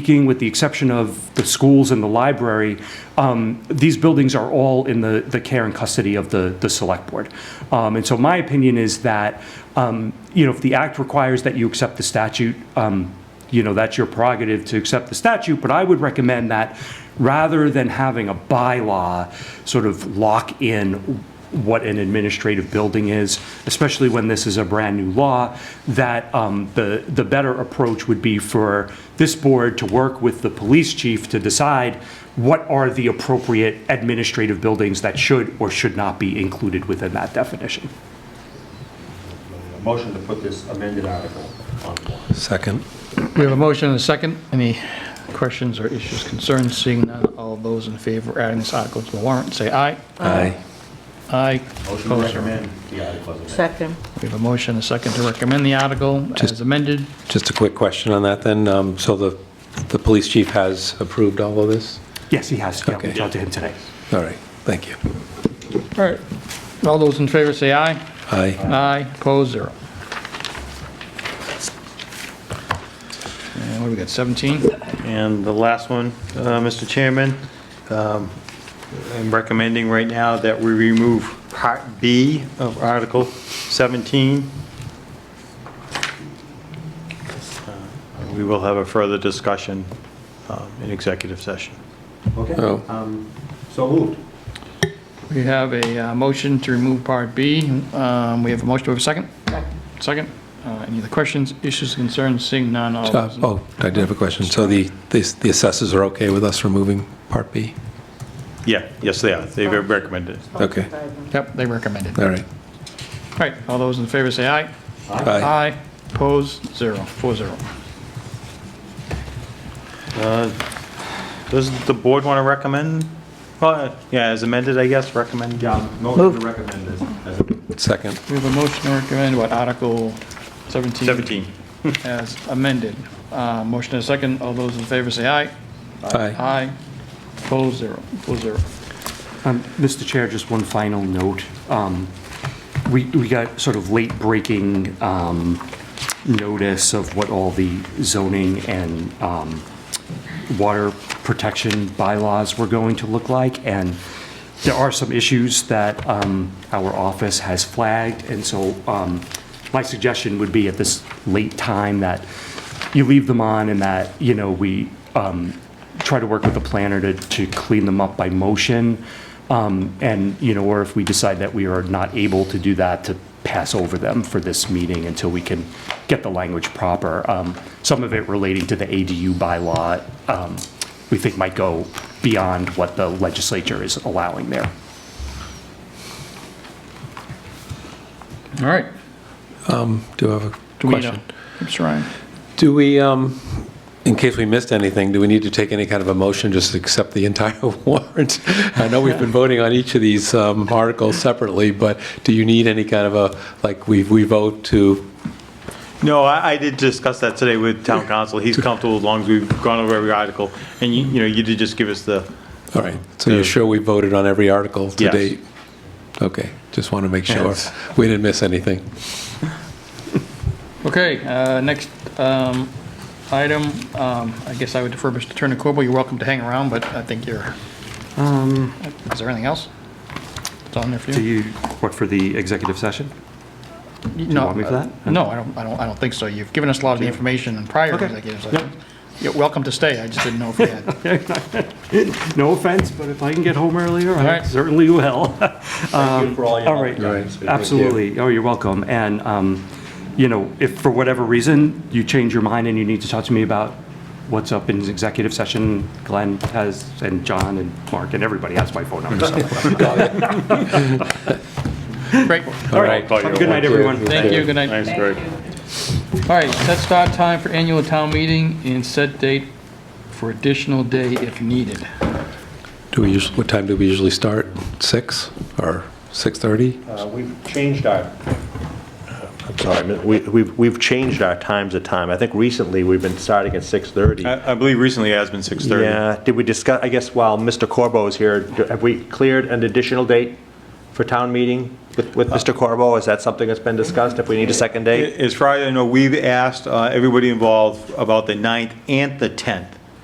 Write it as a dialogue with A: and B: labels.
A: speaking, with the exception of the schools and the library, um, these buildings are all in the, the care and custody of the, the select board. Um, And so my opinion is that, um, you know, if the act requires that you accept the statute, um, you know, that's your prerogative to accept the statute, but I would recommend that rather than having a bylaw sort of lock in what an administrative building is, especially when this is a brand-new law, that um, the, the better approach would be for this board to work with the police chief to decide what are the appropriate administrative buildings that should or should not be included within that definition.
B: Motion to put this amended article on the warrant.
C: Second.
D: We have a motion and a second. Any questions or issues, concerns? Seeing none, all those in favor of adding this article to the warrant, say aye.
C: Aye.
D: Aye.
B: Motion to
D: Opposed?
B: recommend the article as amended.
E: Second.
D: We have a motion and a second to recommend the article as amended.
C: Uh, Just a quick question on that then. Um, So the, the police chief has approved all of this?
A: Yes, he has. Yeah, we
C: Okay.
A: talked to him today.
C: All right, thank you.
D: All right. All those in favor, say aye.
C: Aye.
D: Aye. Opposed, zero. And what do we got, 17?
F: And the last one, uh, Mr. Chairman, um, I'm recommending right now that we remove Part B of Article 17. Uh, We will have a further discussion um, in executive session.
C: Oh.
B: Okay, um, so moved.
D: We have a uh, motion to remove Part B. Um, We have a motion, do we have a second? Second. Uh, Any other questions, issues, concerns? Seeing none, all
C: Uh,
D: those in
C: Oh, I did have a question. So the, the the assessors are okay with us removing Part B?
F: Yeah, yes, they are. They recommended. it.
C: Okay.
D: Yep, they recommend it. All
C: All right.
D: right, all those in favor say aye.
C: Aye.
D: Opposed, zero, four zero.
F: Does the board want to recommend? Well, uh, Yeah, as amended, I guess, recommend. um,
B: Yeah, motion to recommend this as amended.
C: Second.
D: We have a motion to recommend, what, Article 17?
F: 17.
D: As amended. Uh, Motion and a second, all those in favor say aye.
C: Aye.
D: Aye. Opposed, zero, four zero.
A: Um, Mr. Chair, just one final note. Um, We we got sort of late-breaking um, notice of what all the zoning and um, water protection bylaws were going to look like, and there are some issues that um, our office has flagged, and so um, my suggestion would be at this late time that you leave them on and that, you know, we um, try to work with the planner to, to clean them up by motion, um, and, you know, or if we decide that we are not able to do that, to pass over them for this meeting until we can get the language proper. Um, Some of it relating to the ADU bylaw, um, we think might go beyond what the legislature is allowing there.
D: All right.
C: Do you have a
D: Do we need a-
C: question?
D: Mr. Ryan?
C: Do we, um, in case we missed anything, do we need to take any kind of a motion, just to accept the entire warrant? I know we've been voting on each of these um, articles separately, but do you need any kind of a, like, we we vote to
F: No, I, I did discuss that today with town council. He's comfortable as long as we've gone over every article. And you, you know, you did just give us the,
C: All right, so you're sure we voted on every article to
F: Yes.
C: date? Okay, just want to make sure
F: Yes.
C: we didn't miss anything.
D: Okay, uh, next um, item, um, I guess I would defer Mr. Turner Corbo. You're welcome to hang around, but I think you're, is there anything else? It's on there for
G: Um, Do
D: you?
G: you work for the executive session?
D: Do you
G: want me for that?
D: No, Uh, I don't, I don't, I don't think so. You've given us a lot of the information in prior executive sessions. You're welcome to stay, I just didn't know if you had.
A: No offense, but if I can get home earlier,
D: All
A: I
D: right.
A: certainly will.
B: Thank you for all your
A: Um, all right.
B: help.
C: Right.
A: Absolutely. Oh, you're welcome. And, um, you know, if for whatever reason you change your mind and you need to talk to me about what's up in executive session, Glenn has, and John and Mark and everybody has my phone number. so.
D: Great,
A: All right.
F: Call you
A: Have a good
F: at
A: night, everyone.
D: thank you, good night.
F: thanks, Greg.
D: All right, set start time for annual town meeting and set date for additional day if needed.
C: Do we usually, what time do we usually start? Six or 6:30?
B: Uh, We've changed our, I'm sorry, we- we've, we've changed our times of time. I think recently we've been starting at 6:30.
F: I, I believe recently it has been 6:30.
B: Yeah, did we discuss, I guess while Mr. Corbo is here, do- have we cleared an additional date for town meeting with, with Mr. Corbo? Is that something that's been discussed, if we need a second date?
F: As far as I know, we've asked uh, everybody involved about the 9th and the 10th.